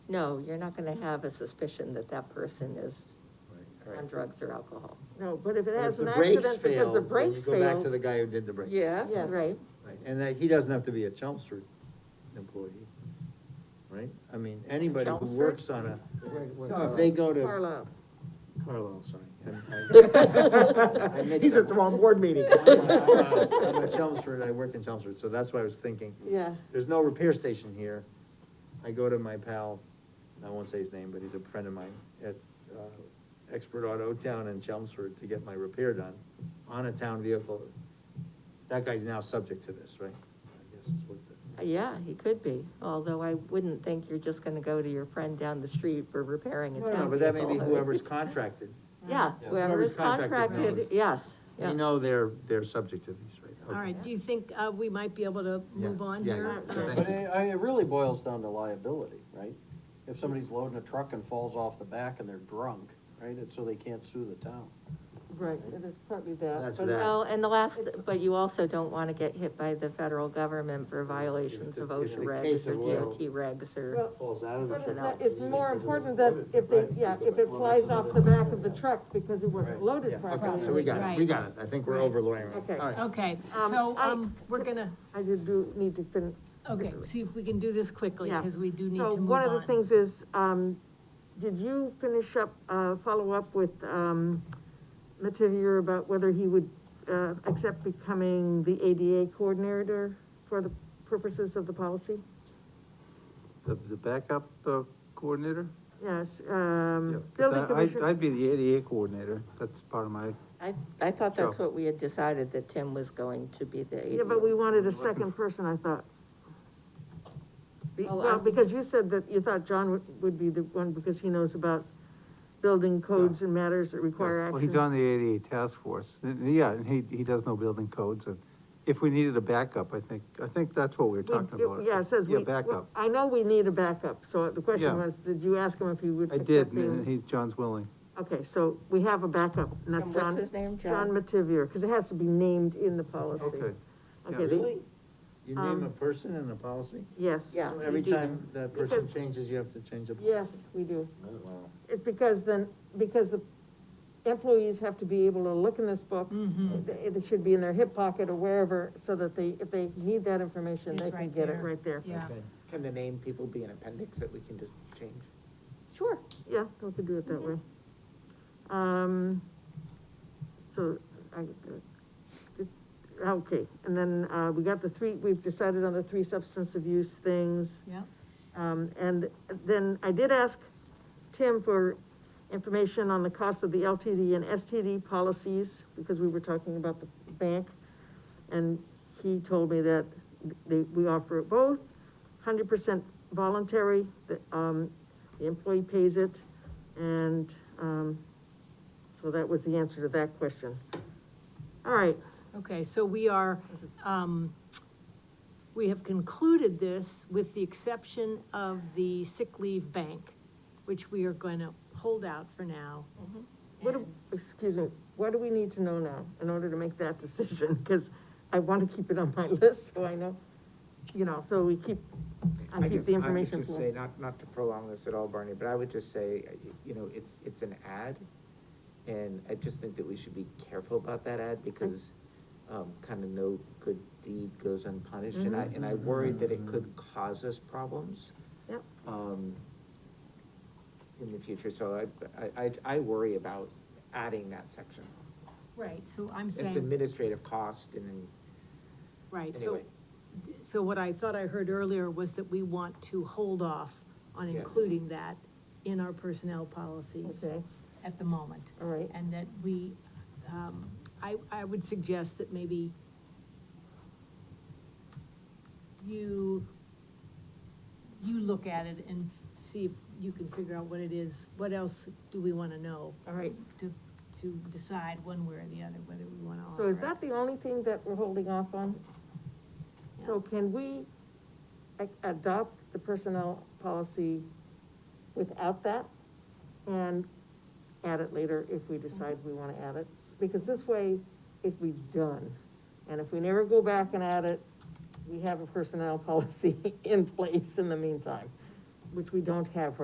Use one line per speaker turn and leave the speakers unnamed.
no, you're not gonna have a suspicion that that person is
Right.
on drugs or alcohol.
No, but if it
But
has
if the
an
brakes
accident
fail,
because the
then
brakes
You go back to
failed,
the guy who did the brakes.
Yeah,
Yes.
right,
Right, And that, he doesn't have to be a Chelmsford employee, right? I mean, anybody who
Chelmsford?
works on a, No, if they go to.
Carlisle.
Carlisle, sorry. He's at the wrong board meeting. I'm at Chelmsford, I work in Chelmsford, so that's what I was thinking.
yeah,
There's no repair station here. I go to my pal, I won't say his name, but he's a friend of mine, at, uh, Expert Auto Town in Chelmsford to get my repair done on a town vehicle. That guy's now subject to this, right? I guess is what the-
yeah, he could be, although I wouldn't think you're just gonna go to your friend down the street for repairing a
No, no,
town
but that may be
vehicle.
whoever's contracted.
Yeah,
Yeah.
whoever's
Whoever's contracted
contracted,
knows.
yes, yeah.
We know they're, they're subject to these, right?
All
Okay.
right, do you think, uh, we might be able to
Yeah,
move on
yeah,
here?
yeah,
Uh,
thank
But it, I, it really boils down to liability, right? If somebody's loading a truck and falls off the back and they're drunk, right, it's so they can't sue the town.
right, it is partly that,
That's
but, uh,
that.
Well, and the last, but you also don't wanna get hit by the federal government for violations of
If the- if
OSHA
the
regs
case
or
of oil-
DOT regs or,
well,
Falls out of the
but it's,
truck.
not- it's more important that if they, yeah, if it flies off the back of the truck because it wasn't
Yeah,
loaded
Okay, so we
properly.
got it, we got it, I think we're over lawyering.
Okay.
All right.
Okay,
Um,
so,
I-
um, we're gonna,
I did do, need to fin,
okay, see if we can do this quickly,
Yeah.
because we do need to
So
move on.
one of the things is, um, did you finish up, uh, follow up with, um, Mativier about whether he would, uh, accept becoming the ADA coordinator for the purposes of the policy?
The, the backup uh, coordinator?
Yes,
Yeah,
um,
'cause
building
I- I'd-
commissioner,
I'd be the ADA coordinator, that's part of my,
I, I thought that's
Sure.
what we had decided, that Tim was going to be the.
yeah, but we wanted a second person, I thought. Be-
Oh,
Well,
I-
because you said that you thought John would, would be the one, because he knows about building codes and matters that require action.
well, he's on the ADA task force, And- and yeah, and he, he does know building codes, and if we needed a backup, I think, I think that's what we were
We-
talking about.
Yeah, it says we.
Yeah,
well,
backup,
I know we need a backup, so the question
Yeah.
was, did you ask him if he would
I
accept
did,
being-
and he's, John's willing,
Okay, so we have a backup, not
And
John.
what's his name,
John
John?
Mativier, because it has to be named in the policy.
okay,
Okay,
Yeah.
the-
You name a
Um,
person in the policy?
Yes.
Yeah.
So
we
Every
do
time that person
Because-
changes, you have to change the.
Yes, we do.
Wow.
It's because then, because the employees have to be able to look in this book.
Mm-hmm.
It, it should be in their hip pocket or wherever, so that they, if they need that information,
It's
they can
right
get it
there.
right there.
Yeah,
Okay.
Can the name people be an appendix that we can just change?
Sure, yeah, we could do it that way. Um, so, I, uh, okay, and then, uh, we got the three, we've decided on the three substance abuse things.
yeah,
Um, and then I did ask Tim for information on the cost of the LTD and STD policies, because we were talking about the bank. And he told me that they, we offer it both, hundred percent voluntary, that, um, the employee pays it, and, um, so that was the answer to that question. All right,
okay, so we are, um, we have concluded this with the exception of the sick leave bank, which we are gonna hold out for now.
What, do- excuse me, what do we need to know now in order to make that decision? Because I want to keep it on my list, so I know, you know, so we keep, I keep
guess
the information
would just
flow.
say, not, not to prolong this at all, Barney, but I would just say, uh, y- you know, it's, it's an ad, and I just think that we should be careful about that ad, because, um, kind of no good deed goes unpunished, and
Mm-hmm.
I, and I worried that it could cause us problems.
Yep.
Um, in the future, so I, I, I, I worry about adding that section.
Right, so I'm
It's
saying.
administrative cost and,
Right, so,
Anyway.
so what I thought I heard earlier was that we want to hold off on
Yeah.
including that in our personnel policies
Okay,
at the moment.
all right,
And that we, um, I, I would suggest that maybe you, you look at it and see if you can figure out what it is, what else do we wanna know
all right.
to, to decide one way or the other, whether we wanna offer
So is
it.
that the only thing that we're holding off on? So can we a- adopt the personnel policy without that? And add it later if we decide we wanna add it? Because this way, if we done, and if we never go back and add it, we have a personnel policy in place in the meantime, which we don't have right